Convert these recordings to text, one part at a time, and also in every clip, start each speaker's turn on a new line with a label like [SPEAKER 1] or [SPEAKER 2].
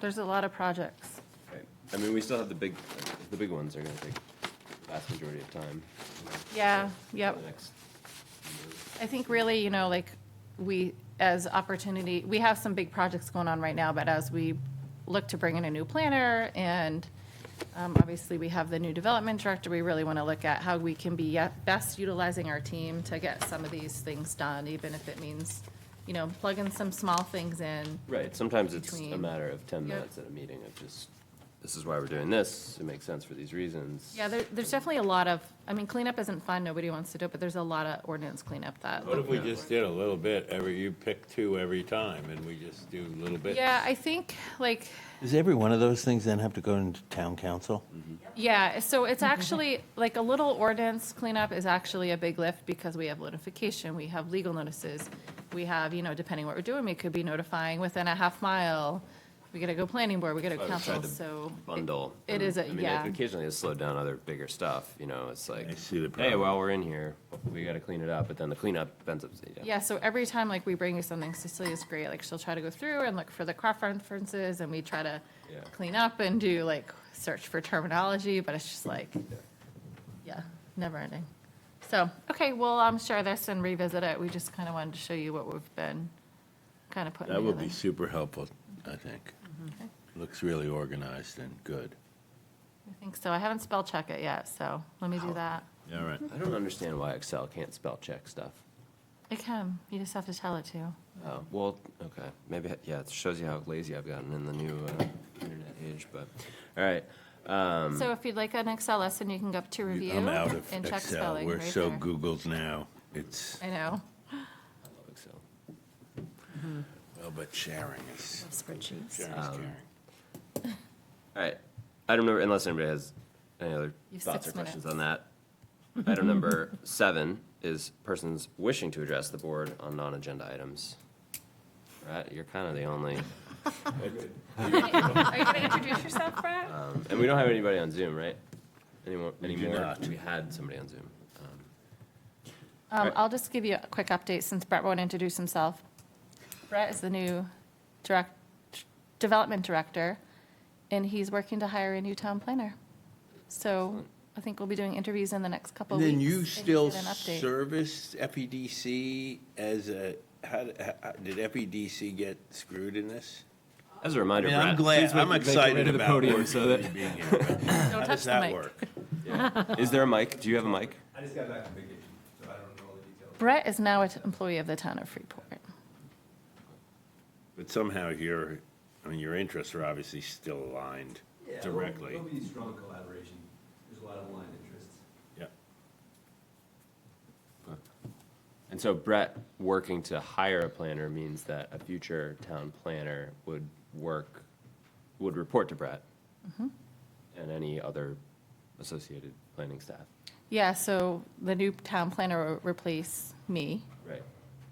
[SPEAKER 1] There's a lot of projects.
[SPEAKER 2] Right. I mean, we still have the big, the big ones are gonna take the vast majority of time.
[SPEAKER 1] Yeah, yep.
[SPEAKER 2] The next-
[SPEAKER 1] I think really, you know, like, we, as opportunity, we have some big projects going on right now, but as we look to bring in a new planner, and um, obviously, we have the new development director, we really want to look at how we can be yet- best utilizing our team to get some of these things done, even if it means, you know, plugging some small things in.
[SPEAKER 2] Right, sometimes it's a
[SPEAKER 1] Between-
[SPEAKER 2] matter of ten
[SPEAKER 1] Yep.
[SPEAKER 2] minutes at a meeting of just, this is why we're doing this, it makes sense for these reasons.
[SPEAKER 1] Yeah, there, there's definitely a lot of, I mean, cleanup isn't fun, nobody wants to do it, but there's a lot of ordinance cleanup that.
[SPEAKER 3] What if we just did a little bit every, you pick two every time and we just do a little bit?
[SPEAKER 1] Yeah, I think, like,
[SPEAKER 4] Does every one of those things then have to go into town council?
[SPEAKER 1] Yeah, so it's
[SPEAKER 2] Mm-hmm.
[SPEAKER 1] actually, like, a little ordinance cleanup is actually a big lift because we have notification, we have legal notices. We have, you know, depending what we're doing, we could be notifying within a half mile. We gotta go planning board, we gotta
[SPEAKER 2] I was
[SPEAKER 1] council,
[SPEAKER 2] trying to
[SPEAKER 1] so. it-
[SPEAKER 2] Bundle.
[SPEAKER 1] It is, a
[SPEAKER 2] I mean, like,
[SPEAKER 1] yeah,
[SPEAKER 2] Occasionally it's slowed down other bigger stuff, you know, it's like,
[SPEAKER 3] I see the
[SPEAKER 2] hey,
[SPEAKER 3] problem.
[SPEAKER 2] while we're in here, we gotta clean it up, but then the cleanup ends up, yeah.
[SPEAKER 1] yeah, so every time, like, we bring you something, Cecilia's great, like, she'll try to go through and look for the cross references, and we try to
[SPEAKER 2] Yeah.
[SPEAKER 1] clean up and do, like, search for terminology, but it's just like, Yeah, never ending. So, okay, we'll um, share this and revisit it. We just kind of wanted to show you what we've been kind of putting
[SPEAKER 3] That would
[SPEAKER 1] together.
[SPEAKER 3] be super helpful, I think.
[SPEAKER 1] Mm-hmm.
[SPEAKER 3] Looks really organized and good.
[SPEAKER 1] I think so. I haven't spell check it yet, so let me do that.
[SPEAKER 3] All right.
[SPEAKER 2] I don't understand why Excel can't spell check stuff.
[SPEAKER 1] I can, you just have to tell it to.
[SPEAKER 2] Oh, well, okay, maybe, yeah, it shows you how lazy I've gotten in the new uh, internet age, but, all right.
[SPEAKER 1] So if you'd like an Excel lesson, you can go up to review
[SPEAKER 3] Um, I'm out of
[SPEAKER 1] and check
[SPEAKER 3] Excel.
[SPEAKER 1] spelling
[SPEAKER 3] We're
[SPEAKER 1] right
[SPEAKER 3] so
[SPEAKER 1] there.
[SPEAKER 3] Googled now. It's,
[SPEAKER 1] I know.
[SPEAKER 2] Love Excel.
[SPEAKER 3] well, but sharing is,
[SPEAKER 5] Spreadsheets.
[SPEAKER 3] sharing is
[SPEAKER 1] Um,
[SPEAKER 3] caring.
[SPEAKER 2] All right. Item number, unless anybody has any other
[SPEAKER 1] You have
[SPEAKER 2] thoughts or
[SPEAKER 1] six
[SPEAKER 2] questions on that. Item number seven is persons wishing to address the board on non-agenda items. Right, you're kind of the only,
[SPEAKER 1] Are you going to introduce yourself, Brett?
[SPEAKER 2] um, and we don't have anybody on Zoom, right? Anyone,
[SPEAKER 3] do
[SPEAKER 2] anymore?
[SPEAKER 3] not.
[SPEAKER 2] We had somebody on Zoom. Um,
[SPEAKER 1] Um, I'll just give you a quick update since Brett won't introduce himself. Brett is the new direct, development director, and he's working to hire a new town planner. So I think we'll be doing interviews in the next couple
[SPEAKER 3] And
[SPEAKER 1] of weeks.
[SPEAKER 3] then you
[SPEAKER 1] and
[SPEAKER 3] still
[SPEAKER 1] get an update.
[SPEAKER 3] service FEDC as a, how, did- how- did FEDC get screwed in this?
[SPEAKER 2] As a reminder,
[SPEAKER 3] I mean, I'm
[SPEAKER 2] Brett,
[SPEAKER 3] glad,
[SPEAKER 2] please make-
[SPEAKER 3] I'm
[SPEAKER 2] make your way
[SPEAKER 3] excited
[SPEAKER 2] to the
[SPEAKER 3] about
[SPEAKER 2] podium
[SPEAKER 3] Lord
[SPEAKER 2] so that-
[SPEAKER 3] Southern being here. but
[SPEAKER 1] Don't
[SPEAKER 3] How
[SPEAKER 1] touch
[SPEAKER 3] does
[SPEAKER 1] the
[SPEAKER 3] that
[SPEAKER 1] mic.
[SPEAKER 3] work?
[SPEAKER 2] Is there a mic? Do you have a mic?
[SPEAKER 6] I just got back from vacation, so I don't know all the details.
[SPEAKER 1] Brett is now an employee of the town of Freeport.
[SPEAKER 3] But somehow your, I mean, your interests are obviously still aligned
[SPEAKER 6] Yeah, there'll-
[SPEAKER 3] directly.
[SPEAKER 6] There'll be strong collaboration. There's a lot of aligned interests.
[SPEAKER 3] Yeah.
[SPEAKER 2] And so Brett working to hire a planner means that a future town planner would work, would report to Brett
[SPEAKER 1] Mm-hmm.
[SPEAKER 2] and any other associated planning staff.
[SPEAKER 1] Yeah, so the new town planner will replace me,
[SPEAKER 2] Right.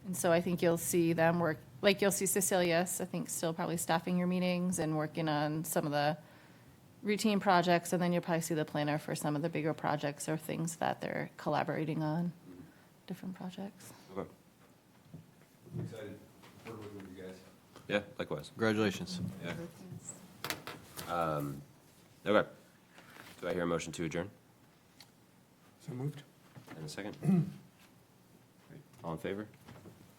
[SPEAKER 1] and so I think you'll see them work, like, you'll see Cecilia, I think, still probably staffing your meetings and working on some of the routine projects, and then you'll probably see the planner for some of the bigger projects or things that they're collaborating on, different projects.
[SPEAKER 2] Okay.
[SPEAKER 6] I'm excited to work with you guys.
[SPEAKER 2] Yeah, likewise.
[SPEAKER 6] Congratulations.
[SPEAKER 2] Um, Okay. Do I hear a motion to adjourn? So moved. And a second? Great. All in favor?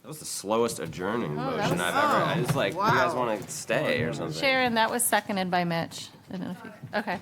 [SPEAKER 2] That was the slowest adjourning
[SPEAKER 1] Oh, that
[SPEAKER 2] motion
[SPEAKER 1] was-
[SPEAKER 2] I've ever, I was like, you guys
[SPEAKER 5] wow.
[SPEAKER 2] want to stay or something?
[SPEAKER 1] Sharon, that was seconded by Mitch. I don't know if you, okay.